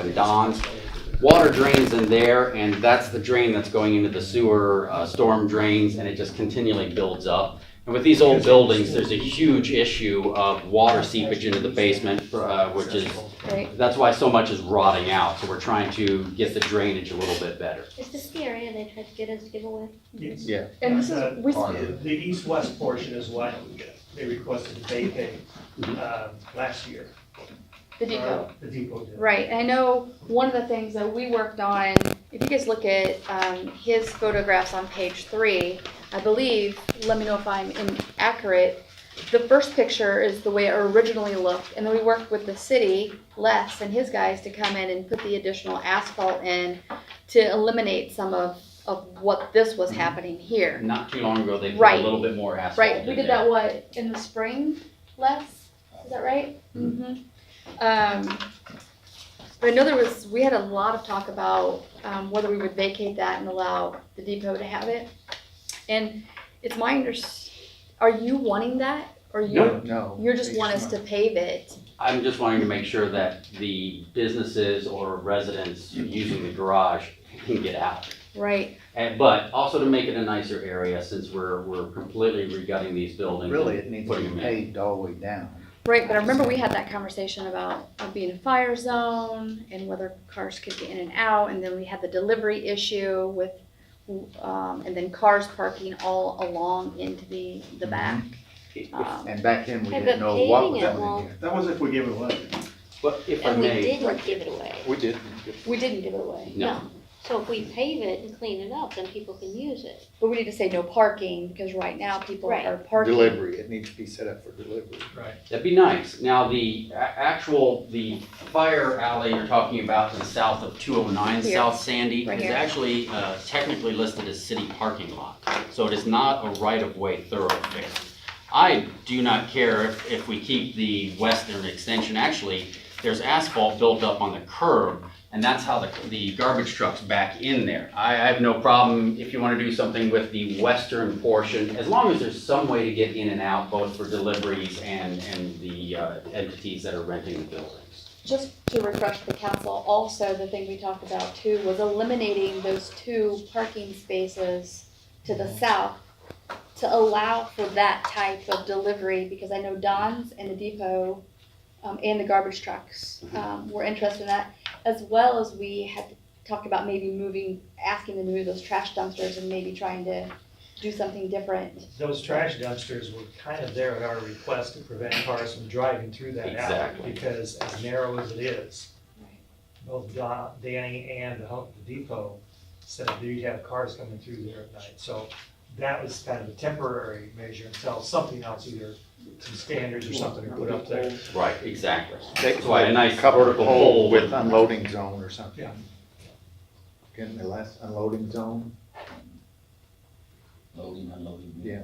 and Don's. Water drains in there, and that's the drain that's going into the sewer, uh, storm drains, and it just continually builds up. And with these old buildings, there's a huge issue of water seepage into the basement, uh, which is, Right. that's why so much is rotting out, so we're trying to get the drainage a little bit better. Is this the area they tried to get us to give away? Yes. Yeah. And this Uh, is, with- The east-west portion is what they requested to vacate, Mm-hmm. uh, last year. the depot. The depot did. Right, and I know one of the things that we worked on, if you guys look at, um, his photographs on page three, I believe, let me know if I'm inaccurate, the first picture is the way it originally looked, and then we worked with the city, Les and his guys to come in and put the additional asphalt in to eliminate some of, of what this was happening here. Not too long ago, they put a Right. little bit more asphalt in Right, we did there. that, what, in the spring, Les, is that right? Mm-hmm. Um, I know there was, we had a lot of talk about, um, whether we would vacate that and allow the depot to have it. And it's my under, are you wanting that, or you, No. you're just want us to pave it? I'm just wanting to make sure that the businesses or residents using the garage can get out. Right, And, but also to make it a nicer area since we're, we're completely regutting these buildings. Really, it needs to Putting be them in. paved all the way down. right, but I remember we had that conversation about it being a fire zone, and whether cars could get in and out, and then we had the delivery issue with um, and then cars parking all along into the, the back. Um, And back then, we Yeah, didn't but know what paving was it going won't- in here. That was if we give it away. But if I And we may, didn't give it away. We did. we didn't give it away, no, So if we pave it and clean it up, then people can use it. but we need to say no parking, because right now people Right. are parking. Delivery, it needs to be set up for delivery. that'd be nice. Now, the a- actual, the fire alley you're talking about to the south of two oh nine Here. South Sandy Right is here. actually uh, technically listed as city parking lot. So it is not a right-of-way thoroughfare. I do not care if, if we keep the western extension. Actually, there's asphalt built up on the curb, and that's how the, the garbage trucks back in there. I, I have no problem if you wanna do something with the western portion, as long as there's some way to get in and out, both for deliveries and, and the uh, entities that are renting the buildings. Just to refresh the council, also, the thing we talked about too was eliminating those two parking spaces to the south to allow for that type of delivery, because I know Don's and the depot, um, and the garbage trucks, um, were interested in that, as well as we had talked about maybe moving, asking them to move those trash dumpsters and maybe trying to do something different. Those trash dumpsters were kind of there at our request to prevent cars from driving through that alley. Exactly. Because as narrow as it is, Right. both Don, Danny and the Home Depot said that you'd have cars coming through there at night. So that was kind of a temporary measure until something else, either some standards or something, are put up there. Right, exactly. That's why a nice Covered vertical hole hole with would- unloading zone or something. Yeah. Getting the last unloading zone, Loading, unloading. yeah.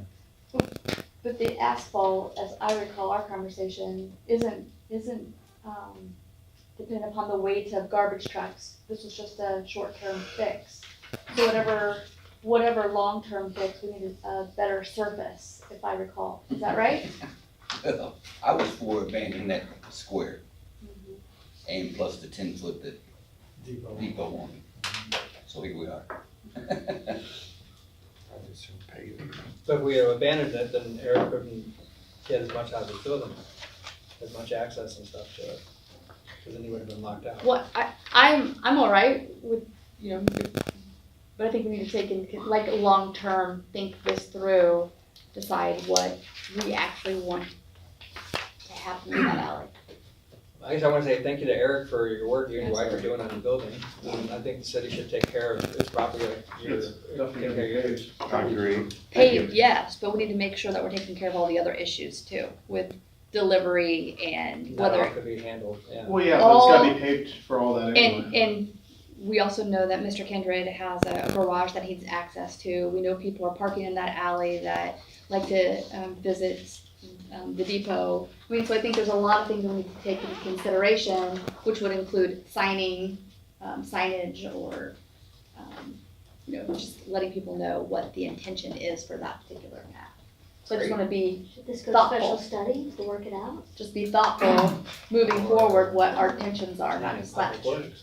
But the asphalt, as I recall our conversation, isn't, isn't, um, dependent upon the weight of garbage trucks. This was just a short-term fix. So whatever, whatever long-term fix, we needed a better surface, if I recall. Is that right? I was for abandoning that square and plus the ten foot that Depot. depot wanted. So here we are. I just don't pay it. But if we abandoned it, then Eric couldn't get as much out of his building, as much access and stuff to it, because then he would have been locked out. Well, I, I'm, I'm all right with, you know, but I think we need to take in, like, long-term, think this through, decide what we actually want to happen in that alley. I guess I want to say thank you to Eric for your work you and your wife are Absolutely. doing on the building. And I think the city should take care of its property, like your, take care of yours. I agree. paved, yes, but we need to make sure that we're taking care of all the other issues too, with delivery and That all whether, could be handled, yeah. Well, yeah, but it's gotta Oh. All- be paved for all that anyway. and, and we also know that Mr. Kindred has a garage that he's access to. We know people are parking in that alley that like to, um, visit, um, the depot. I mean, so I think there's a lot of things that we need to take into consideration, which would include signing, um, signage or, um, you know, just letting people know what the intention is for that particular path. So I just wanna be Should this go to Thoughtful. special studies to work it out? just be thoughtful moving forward what our intentions are, not just Public that. works.